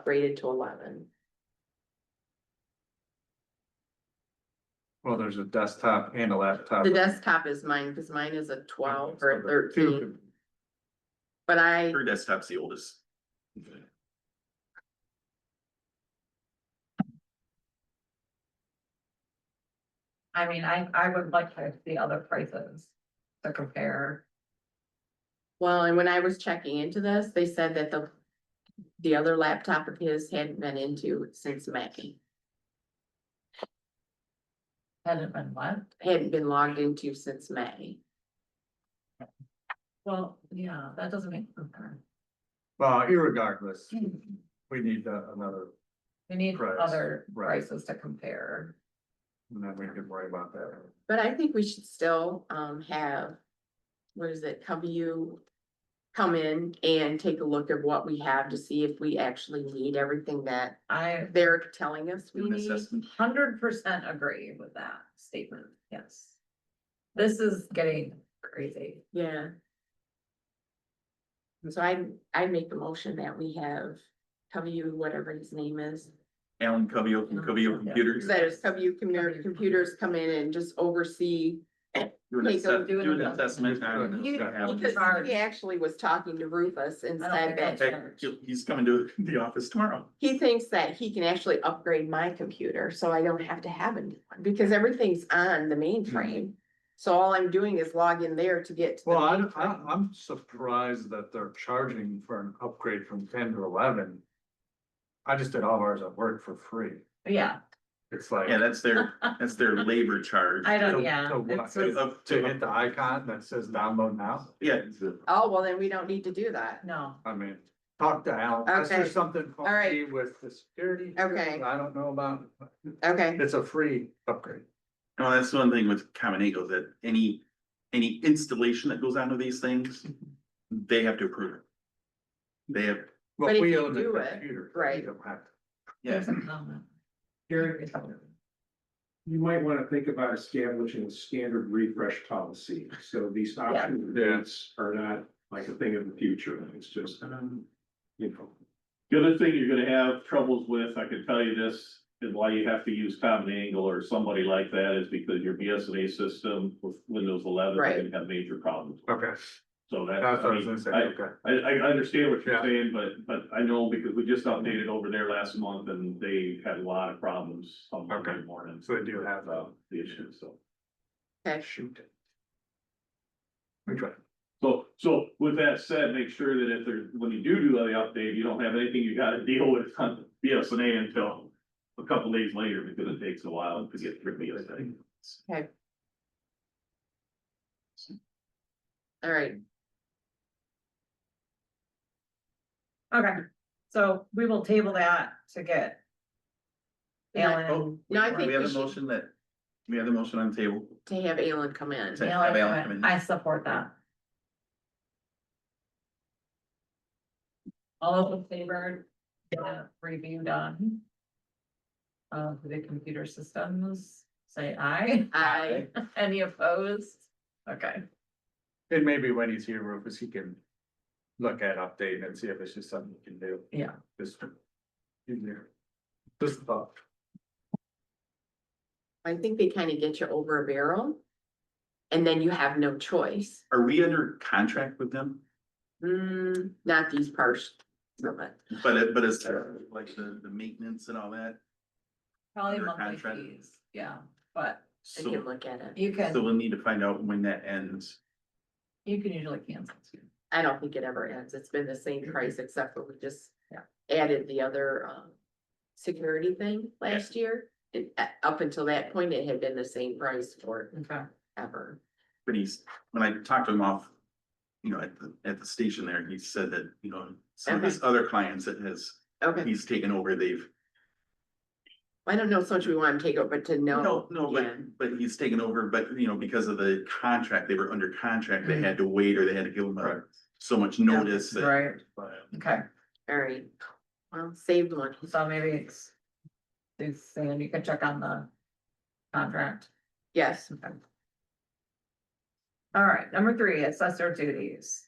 upgraded to eleven. Well, there's a desktop and a laptop. The desktop is mine, because mine is a twelve or a Two thirteen, could- but I, Her desktop's the oldest. I mean, I, I would like to see other prices to compare. well, and when I was checking into this, they said that the. The other laptop of his hadn't been into since May, Hadn't been what? hadn't been logged into since May. Well, yeah, that doesn't make. sense. Well, irregardless, we need uh, another, We need Price, other right. prices to compare. and then we can worry about that. But I think we should still um have, what is it, come you. Come in and take a look at what we have to see if we actually need everything that I they're telling us we Doing need. assessment. hundred percent agree with that statement, yes. This is getting crazy. Yeah. And so I, I make the motion that we have W, whatever his name is, Alan Covio from Covio Computers. that is W commu- computers come in and just oversee. Do an Take a- assess- do an do an assessment. assessment. on He- what's gonna happen. Because he actually was talking to Rufus and I don't said that think that's- Heck, He's coming to the office tomorrow. he thinks that he can actually upgrade my computer, so I don't have to have a new one, because everything's on the mainframe. So all I'm doing is log in there to get to the Well, I, I, mainframe. I'm surprised that they're charging for an upgrade from ten to eleven. I just did all ours at work for free. Yeah, It's like. Yeah, that's their, that's their labor charge. I to- Oh, don't, yeah. to what? it's just- Up To to, hit the icon that says download now. yeah, Oh, well, then we don't need to do that. No, I mean, talk to Alan. Unless Okay. There's something All right. funky with the security. here Okay. that I don't know about. Okay, It's a free upgrade. no, that's one thing with Common Eagle, that any, any installation that goes onto these things, they have to approve it. They have, Well, But if we you own the do it, computer, so we right. don't have to. yeah, there's a comment. Gary, you might want to think about establishing a standard refresh policy, so these option Yeah. dates are not like a thing of the future, it's just, um, you know. The other thing you're gonna have troubles with, I can tell you this, is why you have to use Common Angle or somebody like that is because your BSNA system with Windows eleven, Right. you're gonna have major problems. Okay, So that, that's what I was gonna I mean, say, I, okay. I, I understand what Yeah. Mm-hmm. you're saying, but, but I know because we just updated over there last month and they had a lot of problems on Monday Okay. morning. So they do have- uh, The issue, so. okay, Shoot. We try. So, so with that said, make sure that if there, when you do do the update, you don't have anything you gotta deal with on BSNA until a couple days later, because it takes a while to get through BSNA. all right. Okay, so we will table that to get. Alan. Oh, No, I think we have we a should- motion that, we have the motion on the table. To have Alan come in. to have Alan come in. I support that. All those in favor, uh, review done. Of the computer systems, say aye. Aye. Any opposed? Okay, And maybe when he's here, Rufus, he can look at update and see if it's just something he can do. Yeah. Just in there. Just thought. I think they kind of get you over a barrel. And then you have no choice. Are we under contract with them? Hmm, not these parts of it. But it, but it's like the, the maintenance and all that, probably Under monthly contract. fees, yeah, but I can so, look at it. you so can, we'll need to find out when that ends. you can usually cancel too. I don't think it ever ends. It's been the same price except for we just Yeah. added the other um. Security thing last year. And uh, up until that point, it had been the same price Okay. forever. But he's, when I talked to him off, you know, at the, at the station there, he said that, you know, some of his other clients that has, Okay, he's taken over, they've I don't know so much we want to take over, but to know. No, no, yeah. but, but he's taken over, but you know, because of the contract, they were under contract, they had to wait or they had to give him a, so much notice. that- Right, okay. All right. Well, saved one. So maybe it's. It's saying you can check on the contract. Yes, Okay. All right, number three, assessor duties.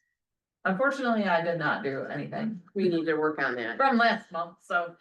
Unfortunately, I did not do anything we need to work on that. from last month, so.